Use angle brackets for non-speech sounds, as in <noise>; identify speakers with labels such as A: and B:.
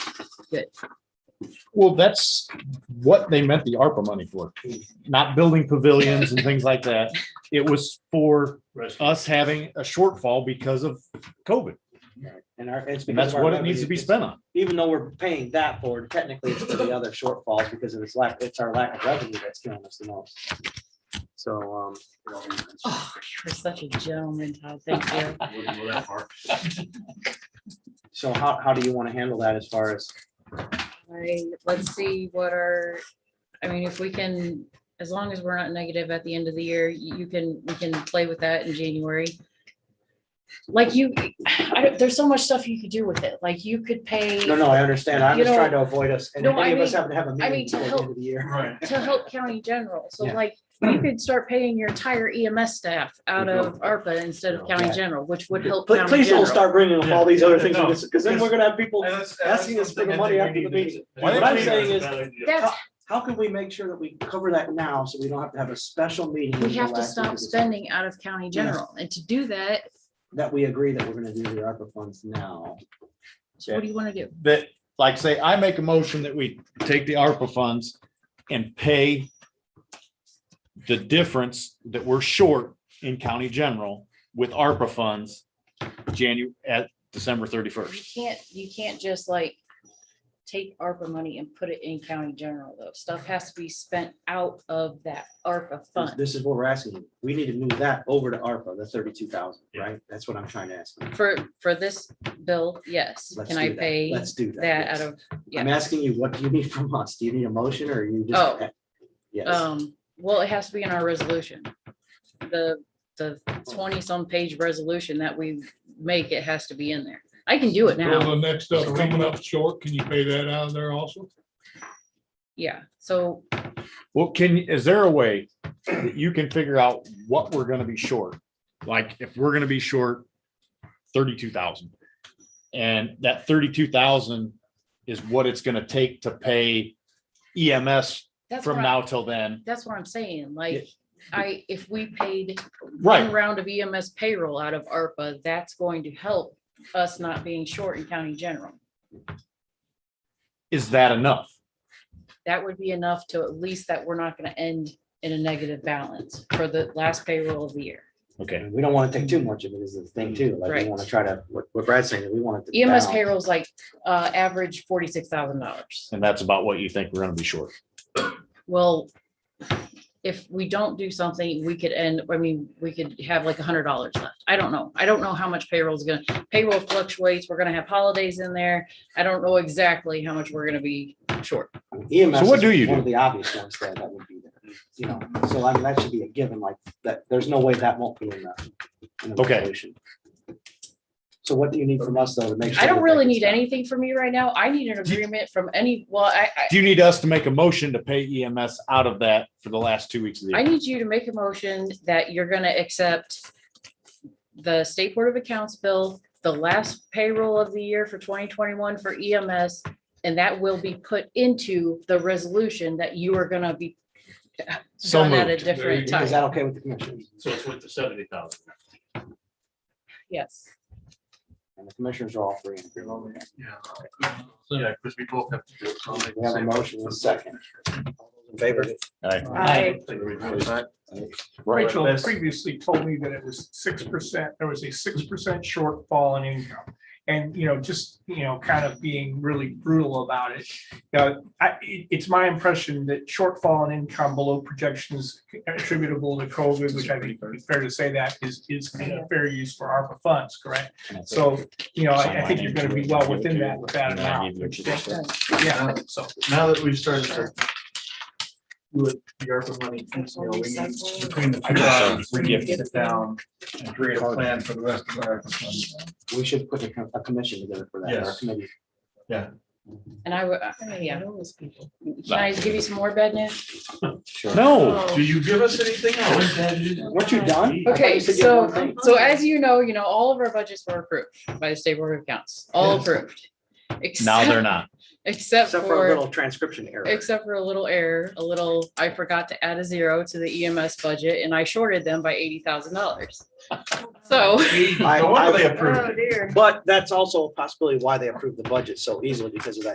A: that,
B: Well, that's what they meant the ARPA money for, not building pavilions and things like that. It was for us having a shortfall because of COVID.
C: And our, it's
B: And
C: because.
B: that's
C: of our
B: what it needs to be
C: revenue.
B: spent on.
C: Even though we're paying that forward, technically it's for the other shortfalls because of its lack, it's our lack of revenue that's killing us the most. So, um.
A: oh, you're such a gentleman, Todd. Thank you.
C: So how, how do you want to handle that as far as,
A: I, let's see what our, I mean, if we can, as long as we're not negative at the end of the year, you you can, we can play with that in January. Like you, I don't, there's so much stuff you could do with it. Like you could pay
C: no, no, I understand. I'm
A: You
C: just
A: know-
C: trying to avoid us. And if
A: No, I
C: any of us
A: mean-
C: happen to have a
A: I
C: meeting
A: mean, to
C: before the
A: help-
C: end of the year.
D: Right.
A: to help county general. So
C: Yeah.
A: like you could start paying your entire EMS staff out of ARPA instead of county
C: Yeah.
A: general, which would help.
C: Please,
A: county
C: please don't
A: general.
C: start bringing up all these other things,
D: Yeah.
C: because then we're gonna have people,
D: And that's-
C: Asking us for the
D: that's
C: money
D: something I
C: after
D: think
C: the
D: we need to
C: meeting.
D: do.
C: What I'm
D: I think
C: saying
D: that's
C: is-
D: a bad idea.
A: That's,
C: how can we make sure that we cover that now, so we don't have to have a special meeting?
A: we
C: the
A: have to
C: last week
A: stop
C: of December?
A: spending out of county general. And to do that,
C: That we agree that we're gonna do the ARPA funds now.
A: so what do you want to do?
B: That, like, say, I make a motion that we take the ARPA funds and pay the difference that we're short in county general with ARPA funds Janu, at December
A: You
B: thirty-first.
A: can't, you can't just like take ARPA money and put it in county general though. Stuff has to be spent out of that ARPA
C: This-
A: fund
C: This is what we're asking. you. We need to move that over to ARPA, the thirty-two thousand,
D: Yeah.
C: right? That's what I'm trying to ask. you.
A: for, for this bill. Yes.
C: Let's
A: Can
C: do
A: I
C: that.
A: pay
C: Let's do
A: that out
C: yes.
A: of,
C: I'm
A: yeah.
C: asking you, what do you <laughs> need from us? Do you need a motion or are you
A: Oh.
C: just? Yes,
A: Um, well, it has to be in our resolution. The, the twenty-some page resolution that we make, it has to be in there. I can do it now.
E: Well, the next stuff coming up short, can you pay that out of there also?
A: Yeah. So
B: Well, can, is there a way that you can figure out what we're gonna be short? Like, if we're gonna be short thirty-two thousand. And that thirty-two thousand is what it's gonna take to pay EMS
A: that's what
B: from
A: I,
B: now till then.
A: that's what I'm saying. Like, I, if we paid one
B: Right,
A: round of EMS payroll out of ARPA, that's going to help us not being short in county general.
B: is that enough?
A: That would be enough to at least that we're not gonna end in a negative balance for the last payroll of the year.
B: Okay,
C: we don't want to take too much of it is the thing too. Like,
A: Right.
C: we want to try to, what what Brad's saying, we want it to.
A: EMS
C: balance.
A: payroll is like, uh, average forty-six thousand dollars.
B: and that's about what you think we're gonna be short.
A: Well, if we don't do something, we could end, I mean, we could have like a hundred dollars left. I don't know. I don't know how much payroll is gonna, payroll fluctuates. We're gonna have holidays in there. I don't know exactly how much we're gonna be short.
C: EMS.
B: So what
C: is
B: do you
C: One of
B: do?
C: the obvious ones there that would be there, you know, so I mean, that should be a given like that. There's no way that won't be in the. in the
B: Okay.
C: resolution. So what do you need from us though to make? sure
A: I don't
C: that
A: really
C: that
A: need
C: gets done?
A: anything from you right now. I need an
B: Do-
A: agreement from any, well, I,
B: Do you need us to make a motion to pay EMS out of that for the last two weeks of the
A: I, I
B: year?
A: need you to make a motion that you're gonna accept the State Board of Accounts bill, the last payroll of the year for twenty twenty-one for EMS, and that will be put into the resolution that you are gonna be
B: So
A: done at a
B: moved.
A: different
D: There
A: time.
C: Is that okay with the commissioners?
D: So it's with the seventy thousand.
A: Yes.
C: And the commissioners are all three in agreement. with that.
D: Yeah. Yeah, because we both have to do. it.
C: We have a motion and a second. All those In favor?
A: Aye.
F: Rachel previously told me that it was six percent, there was a six percent shortfall in income. And, you know, just, you know, kind of being really brutal about it. Now, I, it- it's my impression that shortfall in income below projections attributable to COVID, which I think it's fair to say that is, is kind of fair use for ARPA funds, correct? So, you know, I I think you're gonna be well within that, with that amount. Yeah, so.
D: Now that we've started to do it, the ARPA money, you know, we need, between the two sides, we need to sit down and create a plan for the rest of our ARPA funds.
C: We should put a, co- a commission together for that, or a
D: Yes.
C: committee.
A: And I, would- uh, yeah. Can I give you some more bad news?
C: Sure.
B: No,
D: Do you give us anything else?
C: Weren't you done? I thought
A: Okay,
C: you said you had one
A: so,
C: thing.
A: so as you know, you know, all of our budgets were approved by the state board of accounts, all
D: Yes.
A: approved.
B: now they're
A: Except,
B: not.
A: <laughs> except
C: Except for a
A: for,
C: little transcription error.
A: except for a little error, a little, I forgot to add a zero to the EMS budget and I shorted them by eighty thousand dollars. <laughs> So,
D: No wonder they approved it.
C: But that's also possibly why they approved the budget so easily because of that